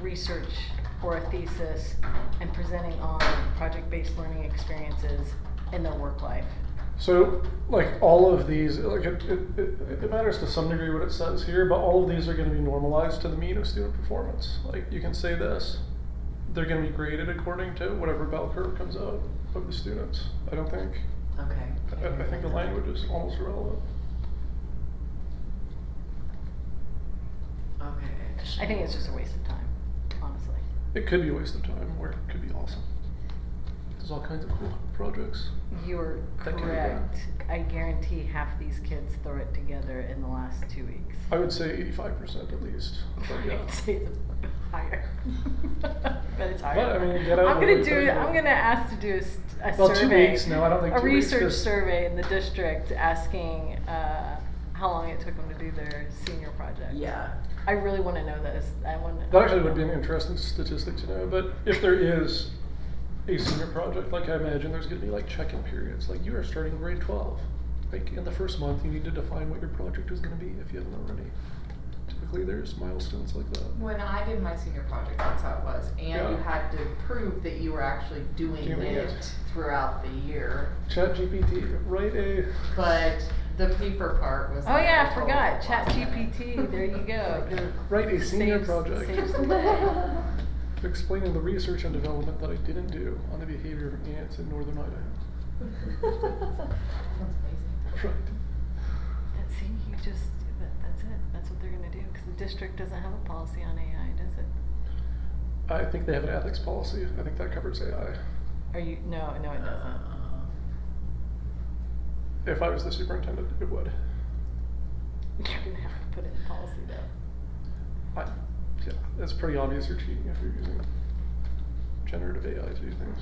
research for a thesis and presenting on project-based learning experiences in their work life. So, like all of these, like it, it, it, it matters to some degree what it says here, but all of these are going to be normalized to the mean of student performance. Like you can say this, they're going to be graded according to whatever bell curve comes out of the students. I don't think. Okay. I, I think the language is almost irrelevant. Okay. I think it's just a waste of time, honestly. It could be a waste of time, or it could be awesome. There's all kinds of cool projects. You're That can be correct. I guarantee half these kids threw it together in the last two weeks. I would say 85% at least. But yeah. I'd say it's higher. But it's higher. But, I mean, get out I'm of gonna the do. way, I'm but- gonna ask to do a, s- a Well, two survey. weeks, no, I don't think a two weeks, research just- survey in the district asking uh, how long it took them to do their senior project. Yeah. I really want to know this. I want. That actually would be an interesting statistic to know, but if there is a senior project, like I imagine there's gonna be like check-in periods, like you are starting grade twelve. Like in the first month, you need to define what your project is gonna be if you haven't already. Typically, there's milestones like that. When I did my senior project, that's how it was, and you Yeah. had to prove that you were actually doing Doing it. it throughout the year. ChatGPT, write a, But the paper part was. Oh like yeah, a I whole forgot. lot. ChatGPT. There you go. You're- write a senior saves- project saves the day. explaining the research and development that I didn't do on the behavior of ants in northern Idaho. That's Right. amazing. That- See, you just, that, that's it, that's what they're gonna do, because the district doesn't have a policy on AI, does it? I think they have an ethics policy. I think that covers AI. Are you, no, no, it doesn't. Uh. If I was the superintendent, it would. You're gonna have to put it in policy though. I, yeah, it's pretty obvious you're cheating if you're using generative AI to do things.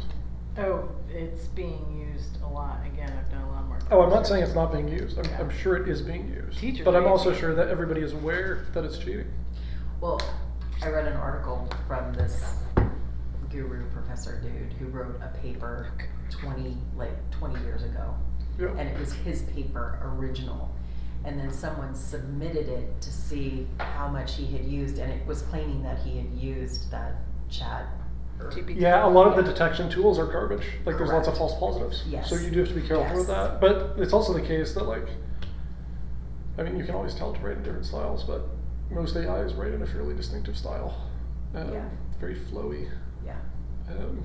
Oh, it's being used a lot, again, I've done a lot more. Oh, I'm not saying it's not being used. I'm, Yeah. I'm sure it is being used. Teachers but I'm are also using it. sure that everybody is aware that it's cheating. Well, I read an article from this guru professor dude who wrote a paper twenty like twenty years ago. Yeah. And it was his paper original. And then someone submitted it to see how much he had used and it was claiming that he had used that chat. or- GPT. yeah, a lot of the detection tools are garbage. Like there's lots of false Correct. positives. Yes. So you do have to be careful with Yes. that. But it's also the case that like, I mean, you can always tell to write in different styles, but most AIs write in a fairly distinctive style. Um, Yeah. Very flowy. Yeah. Um,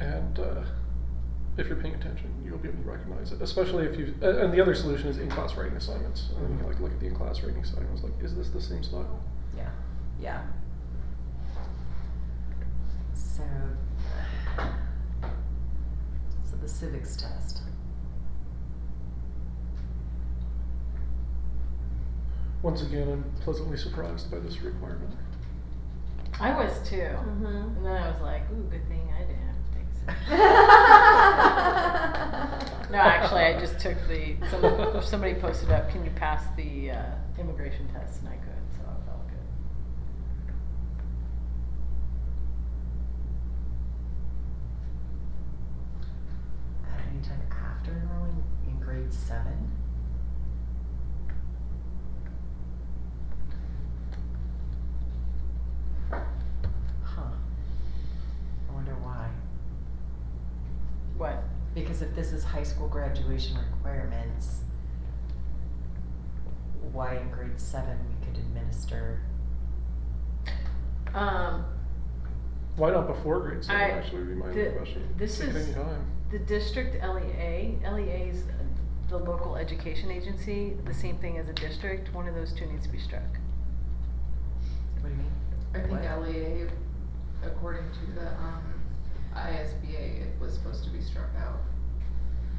and uh, if you're paying attention, you'll be able to recognize it. Especially if you. Uh, and the other solution is in-class writing assignments. And then you can like look at the in-class writing assignments. Like, is this the same style? Yeah, yeah. So, so the civics test. Once again, I'm pleasantly surprised by this requirement. I was too, and Mm-hmm. then I was like, ooh, good thing I didn't have to take some. No, actually, I just took the, some- somebody posted up, can you pass the uh, immigration test, and I could, so I felt good. At any time after enrolling in grade seven? Huh. I wonder why. What? Because if this is high school graduation requirements, why in grade seven we could administer, Um, Why not before grade seven? I- actually, would be my the- question. this Take it is- any time. The district E LEA, LEA is the local education agency, the same thing as a district, one of those two needs to be struck. what do you mean? I think What? LEA, according to the, um, ISBA, it was supposed to be struck out.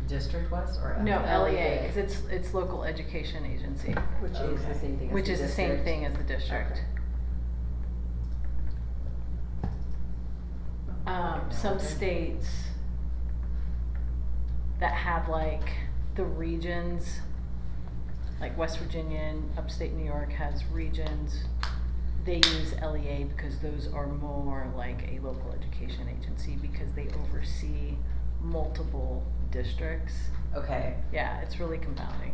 District was or? E No, E LEA, LEA. because it's, it's local education agency, E Which is the Okay. same thing as the district. which is the same thing as the district. Okay. Um, some Okay. states that have like the regions, like West Virginia and upstate New York has regions. They use LEA because those are more like a local education agency because they oversee multiple districts. Okay, Yeah, it's really compounding. E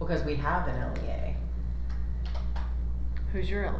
because we have an LEA. Who's your E LEA?